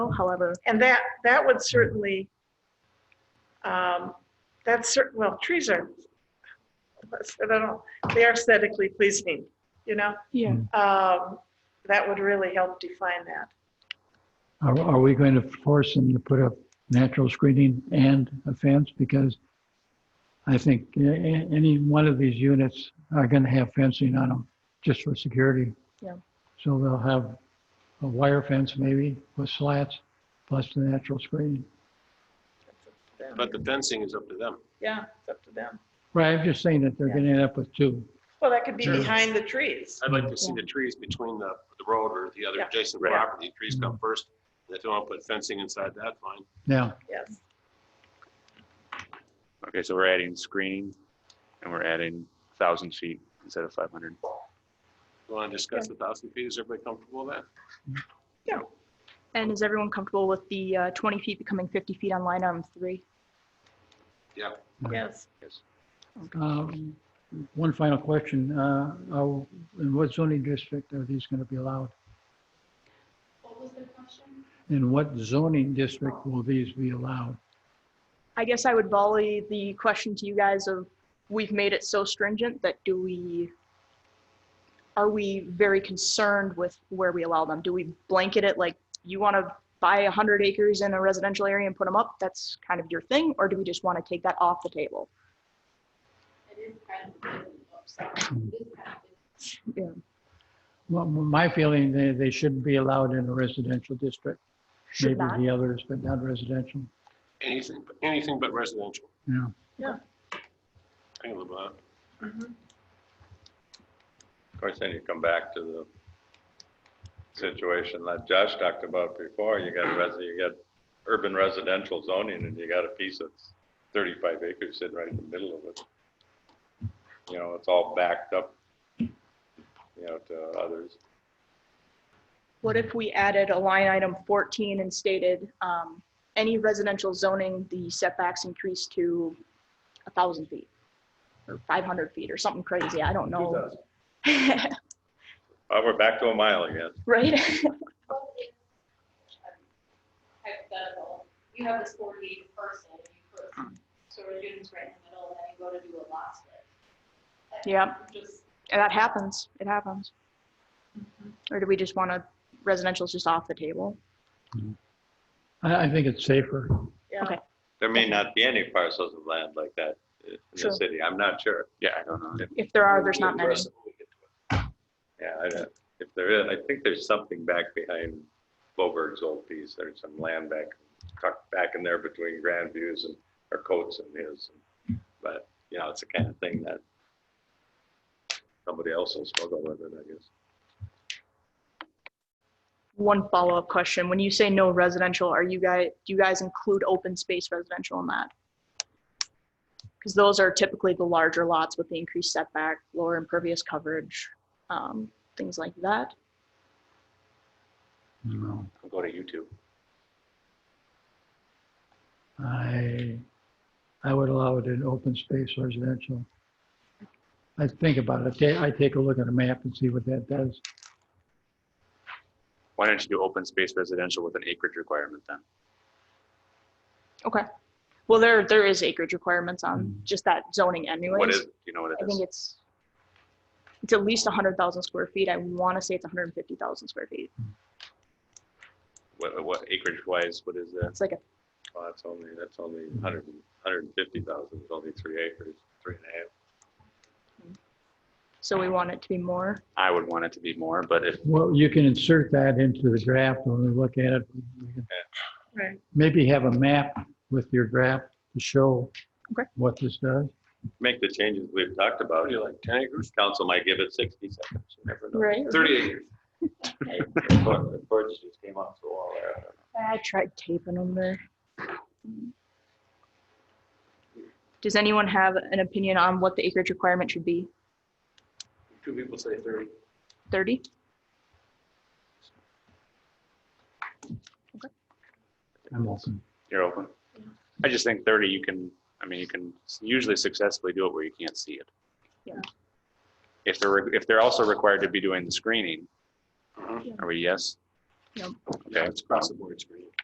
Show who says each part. Speaker 1: however,
Speaker 2: And that, that would certainly, um, that's certain, well, trees are, I don't know, they are aesthetically pleasing, you know?
Speaker 1: yeah.
Speaker 2: Um, That would really help define that.
Speaker 3: Are, are we going to force them to put up natural screening and a fence? Because I think a- a- any one of these units are going to have fencing on them, just for security.
Speaker 1: Yeah.
Speaker 3: So they'll have a wire fence maybe with slats, plus the natural screening.
Speaker 4: But the fencing is up to them.
Speaker 2: Yeah, it's up to them.
Speaker 3: Right, I'm just saying that they're going to end up with two.
Speaker 2: Well, that could be
Speaker 4: Sure.
Speaker 2: behind the trees.
Speaker 4: I'd like to see the trees between the, the road or the other
Speaker 2: Yeah.
Speaker 4: adjacent
Speaker 2: Right.
Speaker 4: property. Trees come first. If they want to put fencing inside that, fine.
Speaker 3: Now,
Speaker 2: Yes.
Speaker 5: Okay, so we're adding screening and we're adding thousand feet instead of five hundred.
Speaker 4: You want to discuss the thousand feet? Is everybody comfortable with that?
Speaker 1: And is everyone comfortable with the uh, 20 feet becoming 50 feet on line item three?
Speaker 2: Yes.
Speaker 3: um, one final question. Uh, are- In what zoning district are these going to be allowed? In what zoning district will these be allowed?
Speaker 1: I guess I would volley the question to you guys of, we've made it so stringent that do we, are we very concerned with where we allow them? Do we blanket it like, you want to buy 100 acres in a residential area and put them up? That's kind of your thing, or do we just want to take that off the table?
Speaker 3: Well, my feeling, they, they shouldn't be allowed in a residential district.
Speaker 1: Should not?
Speaker 3: Maybe the others, but not residential.
Speaker 4: Anything, anything but residential.
Speaker 3: Yeah.
Speaker 4: I can live with that.
Speaker 2: Mhm.
Speaker 6: Of course, then you come back to the situation that Josh talked about before. You got a res, you got urban residential zoning and you got a piece that's thirty-five acres sitting right in the middle of it. You know, it's all backed up, you know, to others.
Speaker 1: What if we added a line item 14 and stated, um, any residential zoning, the setbacks increase to 1,000 feet? Or 500 feet or something crazy, I don't know.
Speaker 6: Oh, we're back to a mile again.
Speaker 1: Right?
Speaker 7: hypothetical, you have this forty acre parcel, you put sort of units right in the middle, and then you go to do a lot split. And
Speaker 1: Yeah.
Speaker 7: Just,
Speaker 1: That happens, it happens. Or do we just want to, residential's just off the table?
Speaker 3: I, I think it's safer.
Speaker 2: Yeah.
Speaker 1: Okay.
Speaker 6: There may not be any parcels of land like that in
Speaker 1: Sure.
Speaker 6: the city. I'm not sure.
Speaker 5: Yeah, I don't know.
Speaker 1: If there are, there's not many.
Speaker 6: Yeah, I don't, if there is, I think there's something back behind Boberg's old piece. There's some land back, tucked back in there between Grand Views and, or Coates and his. But, you know, it's the kind of thing that somebody else will struggle with it, I guess.
Speaker 1: One follow-up question, when you say no residential, are you guys, do you guys include open space residential in that? Because those are typically the larger lots with the increased setback, lower impervious coverage, um, things like that.
Speaker 3: No,
Speaker 5: I'll go to YouTube.
Speaker 3: I, I would allow it in open space residential. I think about it. Ta- I take a look at a map and see what that does.
Speaker 5: Why don't you do open space residential with an acreage requirement then?
Speaker 1: Well, there, there is acreage requirements on
Speaker 3: Mhm.
Speaker 1: just that zoning anyways.
Speaker 5: What is, do you know what
Speaker 1: I
Speaker 5: it
Speaker 1: think
Speaker 5: is?
Speaker 1: it's, it's at least hundred thousand square feet. I want to say it's hundred and fifty thousand square feet.
Speaker 5: What, what acreage wise, what is that?
Speaker 1: It's like a,
Speaker 6: Well, that's only, that's only hundred, hundred and fifty thousand, it's only three acres, three and a half.
Speaker 1: so we want it to be more.
Speaker 5: I would want it to be more, but if,
Speaker 3: Well, you can insert that into the draft when we look at it. We can
Speaker 2: Right.
Speaker 3: Maybe have a map with your draft to show
Speaker 1: Okay.
Speaker 3: what this does.
Speaker 6: Make the changes we've talked about, you're like ten acres, council might give it sixty seconds, you never know.
Speaker 1: Right.
Speaker 4: Thirty acres.
Speaker 6: The board- the board just came off the wall there.
Speaker 1: I tried taping them there. Does anyone have an opinion on what the acreage requirement should be?
Speaker 4: Two people say thirty.
Speaker 1: Thirty?
Speaker 3: I'm open.
Speaker 5: you're open. I just think thirty, you can, I mean, you can usually successfully do it where you can't see it.
Speaker 1: Yeah.
Speaker 5: If they're, re- if they're also required to be doing the screening,
Speaker 4: Mhm.
Speaker 5: are we yes?
Speaker 1: Yep.
Speaker 5: Okay,
Speaker 4: It's across the board screen.